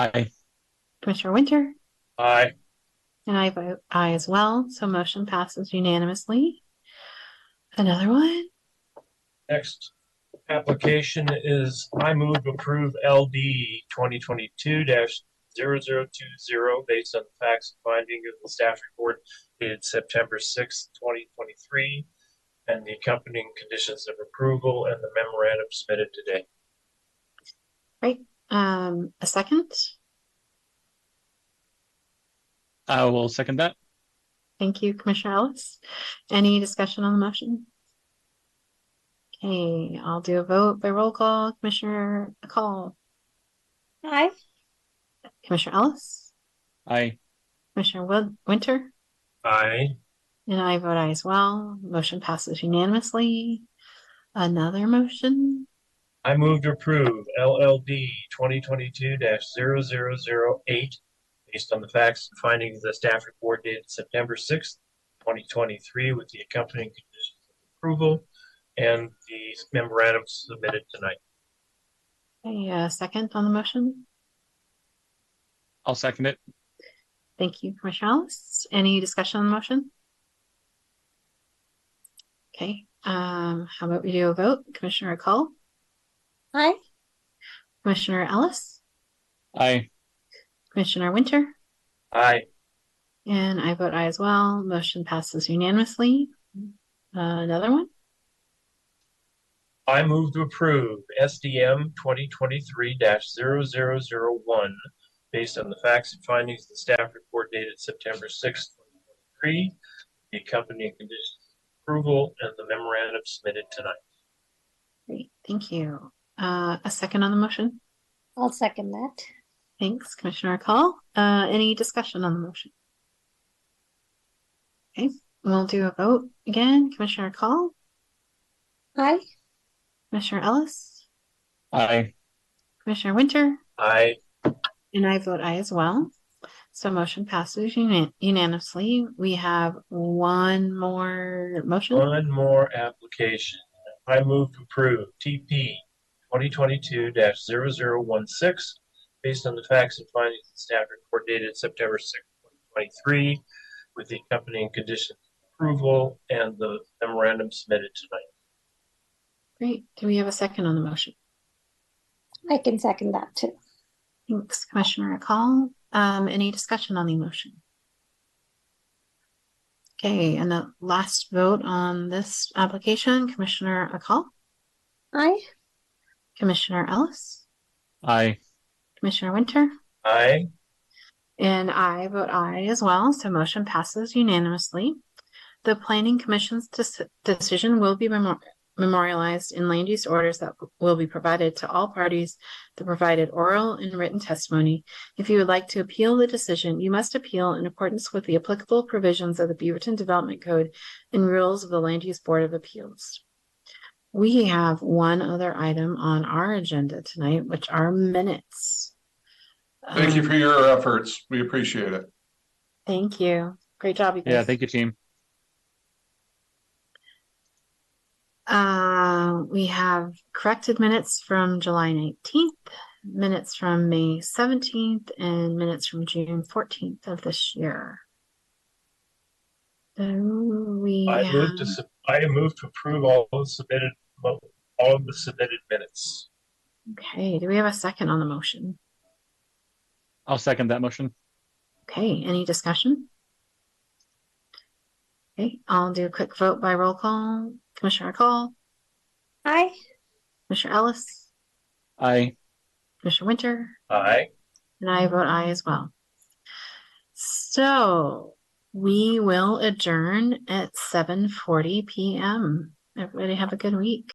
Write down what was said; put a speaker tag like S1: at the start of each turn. S1: Aye.
S2: Commissioner Winter,
S3: Aye.
S2: and I vote aye as well, so motion passes unanimously. Another one,
S3: Next application is I move approve LD twenty twenty-two 20 based on the facts and finding of the staff report dated September sixth, twenty twenty-three, and the accompanying conditions of approval and the memorandum submitted today.
S2: um, a second,
S1: I will second that.
S2: thank you, Commissioner Ellis. Any discussion on the motion? Okay, I'll do a vote by roll call, Commissioner Call,
S4: Aye.
S2: Commissioner Ellis,
S1: Aye.
S2: Commissioner Win- Winter,
S3: Aye.
S2: and I vote aye as well, motion passes unanimously. Another motion,
S3: I move to approve LLD twenty twenty-two 8 based on the facts and findings of the staff report dated September sixth, twenty twenty-three, with the accompanying conditions of approval and the memorandum submitted tonight.
S2: a uh, second on the motion?
S1: I'll second it.
S2: Thank you, Commissioner Ellis. Any discussion on the motion? Okay, um, how about we do a vote? Commissioner Call,
S4: Aye.
S2: Commissioner Ellis,
S1: Aye.
S2: Commissioner Winter,
S3: Aye.
S2: and I vote aye as well. Motion passes unanimously. Uh, Another one?
S3: I move to approve SDM twenty twenty-three one based on the facts and findings of the staff report dated September sixth, twenty twenty-three, the accompanying conditions of approval and the memorandum submitted tonight.
S2: Great, thank you. Uh, a second on the motion?
S4: I'll second that.
S2: Thanks, Commissioner Call. Uh, any discussion on the motion? Okay, we'll do a vote again. Commissioner Call,
S4: Aye.
S2: Commissioner Ellis,
S1: Aye.
S2: Commissioner Winter,
S3: Aye.
S2: And I vote aye as well. So motion passes unan- unanimously. We have one more motion.
S3: One more application. I move to approve TP twenty twenty-two 16 based on the facts and findings of the staff report dated September sixth, twenty twenty-three, with the accompanying conditions of approval and the memorandum submitted tonight.
S2: Great. Do we have a second on the motion?
S4: I can second that too.
S2: Thanks, Commissioner Call. Um, any discussion on the motion? Okay, and the last vote on this application, Commissioner Akal,
S4: Aye.
S2: Commissioner Ellis,
S1: Aye.
S2: Commissioner Winter,
S3: Aye.
S2: And I vote aye as well, so motion passes unanimously. The planning commission's deci- decision will be memor- memorialized in land use orders that will be provided to all parties that provided oral and written testimony. If you would like to appeal the decision, you must appeal in accordance with the applicable provisions of the Beaverton Development Code and rules of the Land Use Board of Appeals. We have one other item on our agenda tonight, which are minutes.
S5: Thank you
S2: Um,
S5: for your efforts. We appreciate it.
S2: Thank you. Great job, you guys.
S1: Yeah, thank you, team.
S2: Uh, we have corrected minutes from July nineteenth, minutes from May seventeenth, and minutes from June fourteenth of this year. So we
S3: I move to,
S2: have-
S3: sub- I move to approve all of the submitted, mo- all of the submitted minutes.
S2: okay, do we have a second on the motion?
S1: I'll second that motion.
S2: Okay, any discussion? Okay, I'll do a quick vote by roll call. Commissioner Call,
S4: Aye.
S2: Commissioner Ellis,
S1: Aye.
S2: Commissioner Winter,
S3: Aye.
S2: And I vote aye as well. So we will adjourn at seven forty PM. Everybody have a good week.